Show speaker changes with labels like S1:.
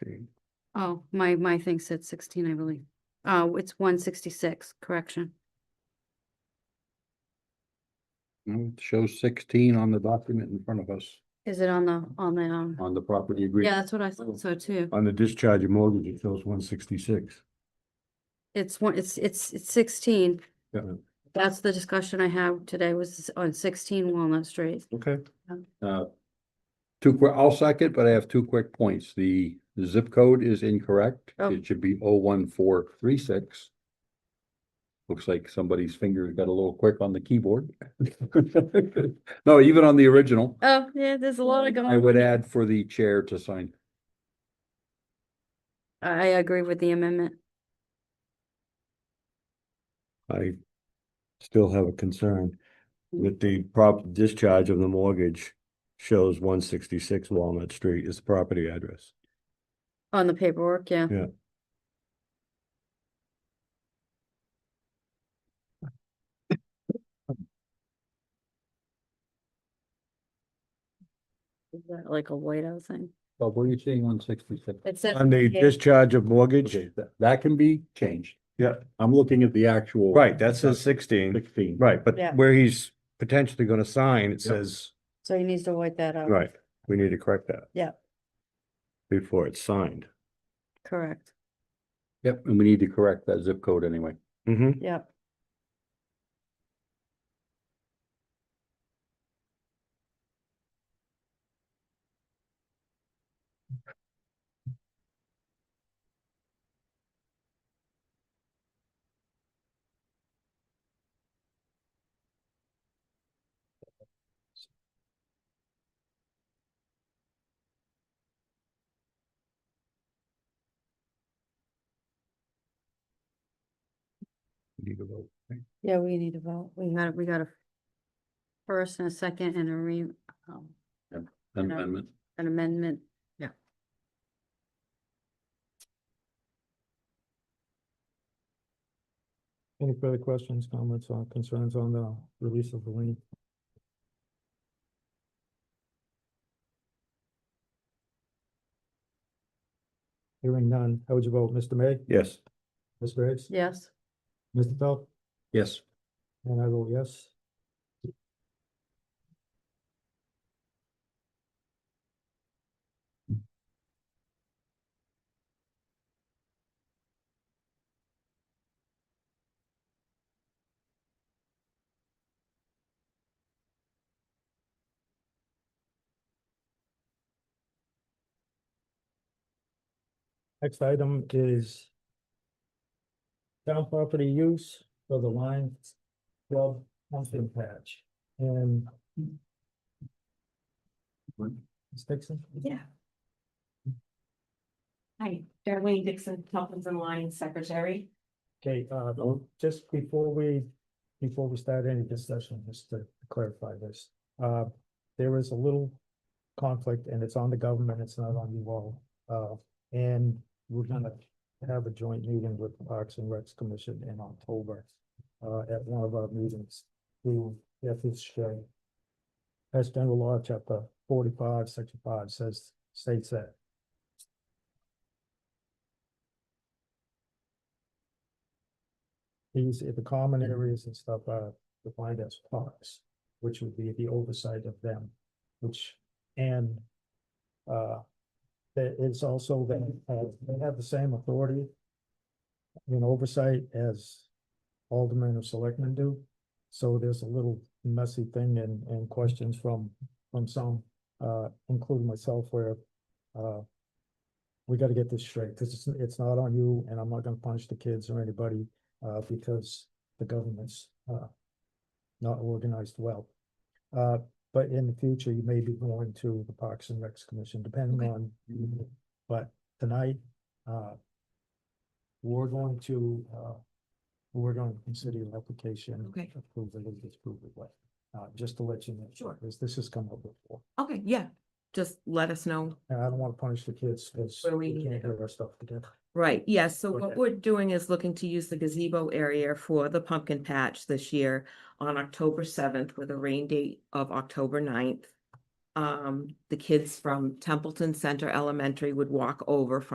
S1: Oh, my, my thing said sixteen, I believe. Oh, it's one sixty-six, correction.
S2: No, it shows Hmm, sixteen on the document in front of us,
S1: Is it on the, on the, um,
S2: on Oh. the property agreement.
S1: yeah, that's what I thought so too.
S2: On the discharge of mortgage, it shows one sixty-six.
S1: It's one, it's, it's, it's sixteen.
S2: Yeah.
S1: That's the discussion I had today was on sixteen Walnut Street.
S2: Okay.
S1: Um.
S2: Uh, Two quick, I'll second, but I have two quick points. The the zip code is incorrect.
S1: Oh.
S2: It should be oh one four three six. Looks like somebody's finger got a little quick on the keyboard. No, even on the original,
S1: Oh, yeah, there's a lot of
S2: I
S1: going.
S2: would add for the chair to sign.
S1: I, I agree with the amendment.
S3: I still have a concern that the prop discharge of the mortgage shows one sixty-six Walnut Street is the property address.
S1: On the paperwork, yeah.
S3: Yeah.
S1: Is that Like a whiteout thing.
S2: Bob, what are you seeing on sixty-six?
S1: It says.
S3: On the discharge of mortgage,
S2: Okay, that, that can be changed.
S3: Yeah.
S2: I'm looking at the actual.
S3: right, that says sixteen,
S2: Sixteen.
S3: right,
S1: Yeah.
S3: but where he's potentially gonna sign, it says,
S1: So he needs to white that out.
S3: right, we need to correct that.
S1: Yeah.
S3: Before it's signed.
S1: Correct.
S2: Yep, and we need to correct that zip code anyway.
S3: Mm-hmm.
S1: Yep.
S2: Need to vote, right?
S1: Yeah, we need to vote. We got, we got a first and a second and a re, um,
S2: An
S1: No.
S2: Amendment.
S1: an amendment.
S4: Any further questions, comments, or concerns on the release of the lien? Hearing none, how would you vote, Mr. May,
S3: Yes.
S4: Ms. Graves?
S1: Yes.
S4: Mr. Phelps?
S2: Yes.
S4: And I vote yes. Next item is town property use for the line Club pumpkin patch and. Ms. Dixon?
S5: Yeah. Hi, Darlene Dixon, Health and Lyons Secretary.
S4: Okay, uh, just before we, before we start any discussion, just to clarify this, uh, there is a little conflict and it's on the government, it's not on you all. Uh, and we're gonna have a joint meeting with the Parks and Recs Commission in October, uh, at one of our meetings. We, if it's, uh, Mass General Law, Chapter forty-five, Section five says, states that. These, if the common areas and stuff are defined as parks, which would be the oversight of them, which, and. Uh, that it's also that, uh, they have the same authority. In oversight as aldermen or selectmen do, so there's a little messy thing and, and questions from, from some, uh, including myself where, uh. We gotta get this straight, cause it's, it's not on you and I'm not gonna punish the kids or anybody uh, because the government's, uh, not organized well. Uh, but in the future, you may be going to the Parks and Recs Commission, depending on, but tonight, uh, we're going to, uh, we're going to consider your application.
S5: Okay.
S4: Approve it or disapprove it, but, uh, just to let you know.
S5: Sure.
S4: Because this has come up before,
S5: Okay, yeah, just let us know.
S4: and I don't want to punish the kids, because
S5: Where we
S4: we
S5: need
S4: can't
S5: to
S4: get our stuff together.
S5: Right, yes, so what
S4: Okay.
S5: we're doing is looking to use the gazebo area for the pumpkin patch this year on October seventh with a rain date of October 9th. Um, the kids from Templeton Center Elementary would walk over from